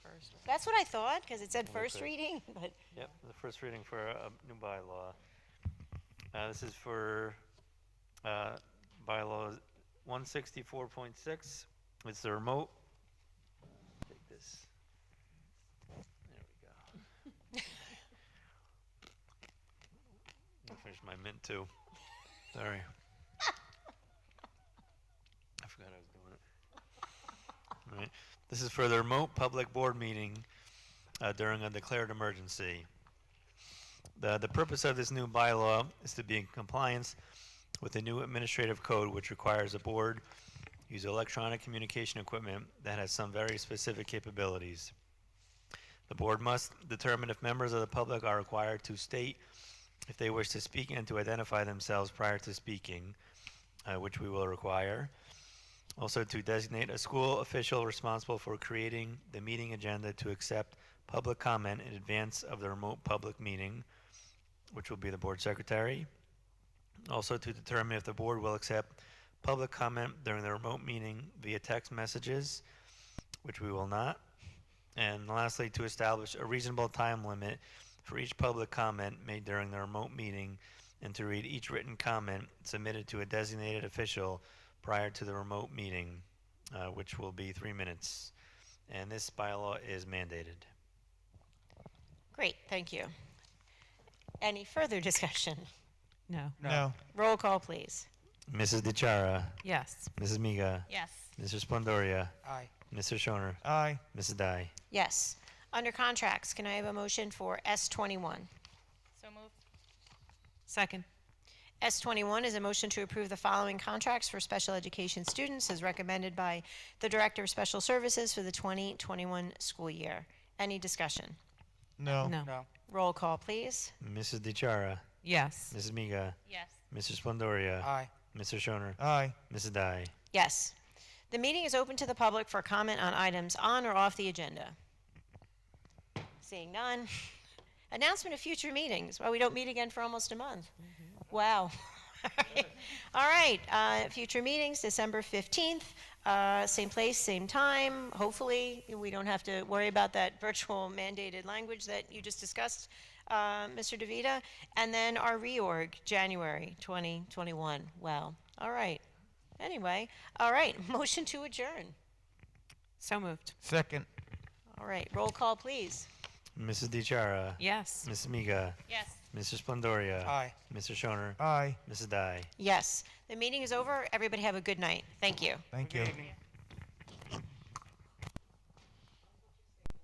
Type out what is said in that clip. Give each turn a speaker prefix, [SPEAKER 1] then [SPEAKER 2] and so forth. [SPEAKER 1] first reading.
[SPEAKER 2] That's what I thought, because it said
[SPEAKER 3] Okay.
[SPEAKER 2] first reading, but
[SPEAKER 3] Yep, the first reading for a new bylaw. Uh, this is for, uh, bylaws one sixty-four point six. It's the remote. Take this. There we go. I'll finish my mint too. Sorry. I forgot I was doing it. All right. This is for the remote public board meeting uh, during a declared emergency. The, the purpose of this new bylaw is to be in compliance with the new administrative code, which requires a board use electronic communication equipment that has some very specific capabilities. The board must determine if members of the public are required to state if they wish to speak and to identify themselves prior to speaking, uh, which we will require. Also, to designate a school official responsible for creating the meeting agenda to accept public comment in advance of the remote public meeting, which will be the board secretary. Also, to determine if the board will accept public comment during the remote meeting via text messages, which we will not. And lastly, to establish a reasonable time limit for each public comment made during the remote meeting and to read each written comment submitted to a designated official prior to the remote meeting, uh, which will be three minutes. And this bylaw is mandated.
[SPEAKER 2] great, thank you. Any further discussion?
[SPEAKER 1] No.
[SPEAKER 4] No.
[SPEAKER 2] Roll call, please.
[SPEAKER 3] Mrs. DeChara,
[SPEAKER 1] Yes.
[SPEAKER 3] Mrs. Miga,
[SPEAKER 1] Yes.
[SPEAKER 3] Mr. Splendoria,
[SPEAKER 4] Aye.
[SPEAKER 3] Mr. Shoner,
[SPEAKER 4] Aye.
[SPEAKER 3] Mrs. Dai.
[SPEAKER 2] Yes. Under contracts, can I have a motion for S21?
[SPEAKER 5] So moved.
[SPEAKER 1] Second.
[SPEAKER 2] S21 is a motion to approve the following contracts for special education students as recommended by the Director of Special Services for the 2021 school year. Any discussion?
[SPEAKER 4] No.
[SPEAKER 1] No.
[SPEAKER 2] Roll call, please.
[SPEAKER 3] Mrs. DeChara,
[SPEAKER 1] Yes.
[SPEAKER 3] Mrs. Miga,
[SPEAKER 5] Yes.
[SPEAKER 3] Mr. Splendoria,
[SPEAKER 4] Aye.
[SPEAKER 3] Mr. Shoner,
[SPEAKER 4] Aye.
[SPEAKER 3] Mrs. Dai.
[SPEAKER 2] Yes. The meeting is open to the public for comment on items on or off the agenda. Seeing none. Announcement of future meetings. Well, we don't meet again for almost a month. Wow. All right, uh, future meetings, December 15th, uh, same place, same time. Hopefully, we don't have to worry about that virtual mandated language that you just discussed, uh, Mr. DeVita. And then our reorg, January 2021. Wow. All right. Anyway, all right, motion to adjourn.
[SPEAKER 1] So moved.
[SPEAKER 4] Second.
[SPEAKER 2] All right, roll call, please.
[SPEAKER 3] Mrs. DeChara,
[SPEAKER 1] Yes.
[SPEAKER 3] Mrs. Miga,
[SPEAKER 5] Yes.
[SPEAKER 3] Mr. Splendoria,
[SPEAKER 4] Aye.
[SPEAKER 3] Mr. Shoner,
[SPEAKER 4] Aye.
[SPEAKER 3] Mrs. Dai.
[SPEAKER 2] Yes, the meeting is over. Everybody have a good night. Thank you.
[SPEAKER 4] Thank you.
[SPEAKER 5] evening.